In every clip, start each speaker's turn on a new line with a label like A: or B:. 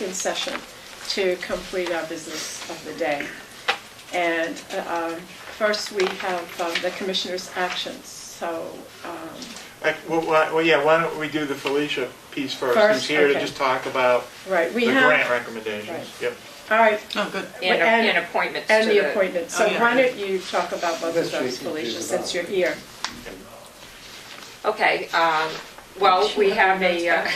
A: in session to complete our business of the day. And uh, um, first, we have um, the commissioners' actions. So um,
B: Like, Well, why- well, yeah, why don't we do the Felicia piece first?
A: First,
B: Who's here to
A: okay.
B: just talk about
A: Right,
B: the
A: we
B: grant
A: have,
B: recommendations?
A: Right.
B: Yep.
A: all right,
C: Oh, good.
A: And-
D: And,
A: and
D: and appointments to
A: and
D: the.
A: the appointment. So
C: Oh, yeah.
A: why don't you talk about both of
E: That's what
A: those,
E: you can do
A: Felicia,
E: about
A: since you're
E: it.
A: here.
D: Okay, um, well, we have a, uh,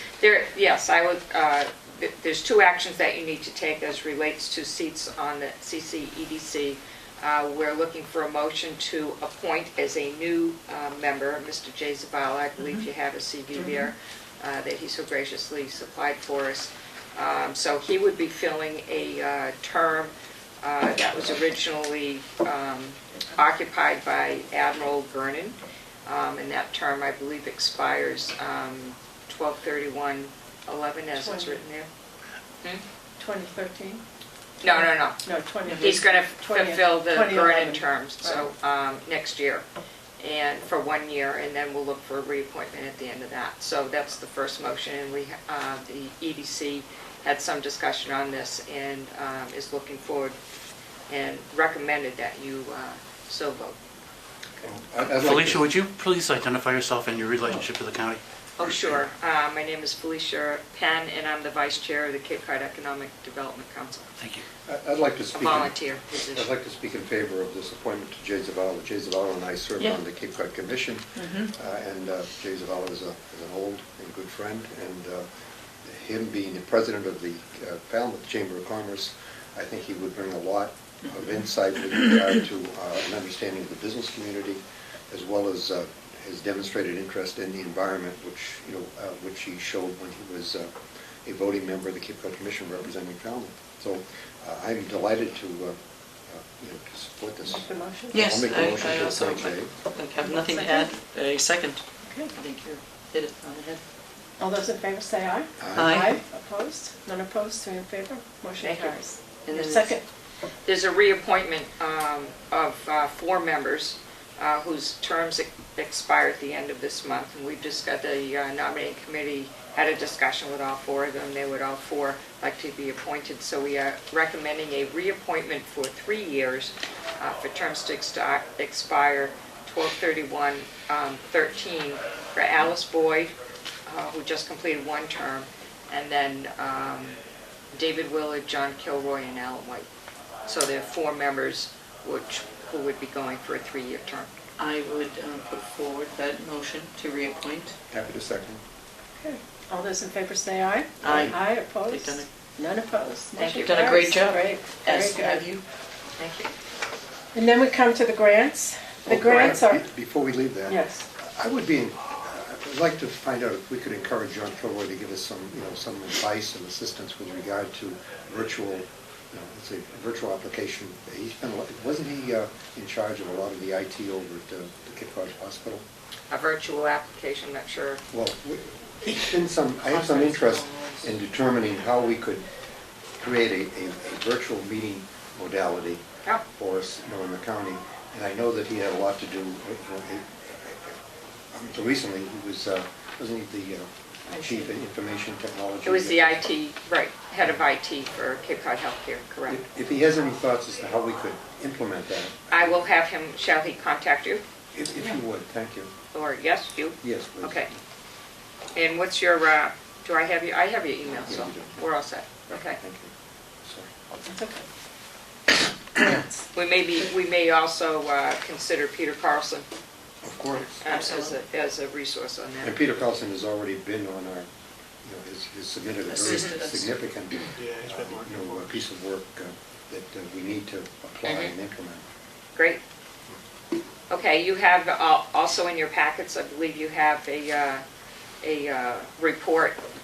D: there, yes, I would, uh, th- there's two actions that you need to take as relates to seats on the CCEDC. Uh, We're looking for a motion to appoint as a new uh, member, Mr. Jay Zabala, I
A: Mm-hmm.
D: believe you have a CV there, uh, that he so graciously supplied for us. Um, So he would be filling a uh, term uh, that was originally um, occupied by Admiral Vernon. Um, And that term, I believe, expires um, 12/31/11, as it's
A: Twenty.
D: written there.
A: 2013?
D: No, no, no.
A: No, 20.
D: He's going to fulfill the
A: 20,
D: Vernon
A: 2011.
D: terms, so um, next year, and for one year, and then we'll look for a reappointment at the end of that. So that's the first motion, and we, uh, the EDC had some discussion on this and um, is looking forward and recommended that you uh, so vote.
E: I'd- I'd like
F: Felicia,
E: to-
F: would you please identify yourself and your relationship to the county?
D: Oh, sure. Uh, My name is Felicia Penn, and I'm the vice chair of the Cape Cod Economic Development Council,
F: Thank you.
E: I- I'd like to
D: a
E: speak, in-
D: volunteer
E: I'd
D: position.
E: like to speak in favor of this appointment to Jay Zavala. Jay Zavala and I serve
C: Yeah.
E: on the Cape Cod Commission,
F: Mm-hmm.
E: uh, and uh, Jay Zavala is a, is an old and good friend, and uh, him being the president of the uh, Falmouth Chamber of Commerce, I think he would bring a lot of
F: Mm-hmm.
E: insight with regard to uh, an understanding of the business community, as well as uh, his demonstrated interest in the environment, which, you know, uh, which he showed when he was uh, a voting member of the Cape Cod Commission representing Falmouth. So uh, I'm delighted to, uh, uh, you know, to support this.
A: Make the motion?
C: Yes,
E: I'll make the motion
C: I I
E: to
C: also,
E: appoint Jay.
C: I have nothing to add. A second. I
A: Okay.
C: think you hit it on the head.
A: All those in favor say aye.
E: Aye.
C: Aye.
A: Opposed? None opposed, three in favor? Motion
D: Thank you.
A: carries.
C: And
A: Your
C: then-
A: second,
D: There's a reappointment um, of uh, four members uh, whose terms ex- expire at the end of this month. And we've just got the uh, nominating committee had a discussion with all four of them. They would all four like to be appointed. So we are recommending a reappointment for three years uh, for terms to exti- expire 12/31/13 for Alice Boyd, uh, who just completed one term, and then um, David Willard, John Kilroy, and Alan White. So there are four members which, who would be going for a three-year term.
C: I would uh, put forward that motion to reappoint.
E: Happy to second.
A: okay. All those in favor say aye.
C: Aye.
A: Aye,
C: They've done
A: opposed? None opposed.
D: Thank
A: Motion
D: you.
C: You've done a great
A: carries.
C: job.
A: Great,
C: As
A: very
C: have
A: good.
C: you.
D: Thank you.
A: And then we come to the grants. The
E: Oh, Brian,
A: grants are,
E: be- Before we leave that.
A: yes.
E: I would be, uh, I'd like to find out if we could encourage John Kilroy to give us some, you know, some advice and assistance with regard to virtual, you know, let's say, virtual application. He's been, a lot- wasn't he uh, in charge of a lot of the IT over at uh, the Cape Cod Hospital?
D: A virtual application, not sure.
E: Well, we- it's been some, I have some interest in determining how we could create a, a a virtual meeting modality
D: Yeah.
E: for us, you know, in the county. And I know that he had a lot to do, with- with- um, until recently, he was, uh, wasn't he the uh, chief of information technology?
D: It was the IT, right, head of IT for Cape Cod Healthcare, correct.
E: If- If he has any thoughts as to how we could implement that,
D: I will have him, shall he contact you?
E: if if you would, thank you.
D: Or yes, you?
E: Yes, please.
D: Okay. And what's your, uh, do I have you, I have your email,
E: Yeah,
D: so
E: you do.
D: we're all set. Okay.
E: Thank you. Sorry.
A: It's okay. Grants.
D: We may be, we may also uh, consider Peter Carlson
E: Of course.
D: uh, as a, as a resource on
E: And
D: that.
E: Peter Carlson has already been on our, you know, has has submitted a very
C: Assisted us.
E: significant, uh,
B: Yeah, he's been working
E: you know,
B: for
E: uh,
B: us.
E: piece of work uh, that uh, we need to apply
D: Mhm.
E: and implement.
D: Great. Okay, you have uh, also in your packets, I believe you have a, uh, a uh, report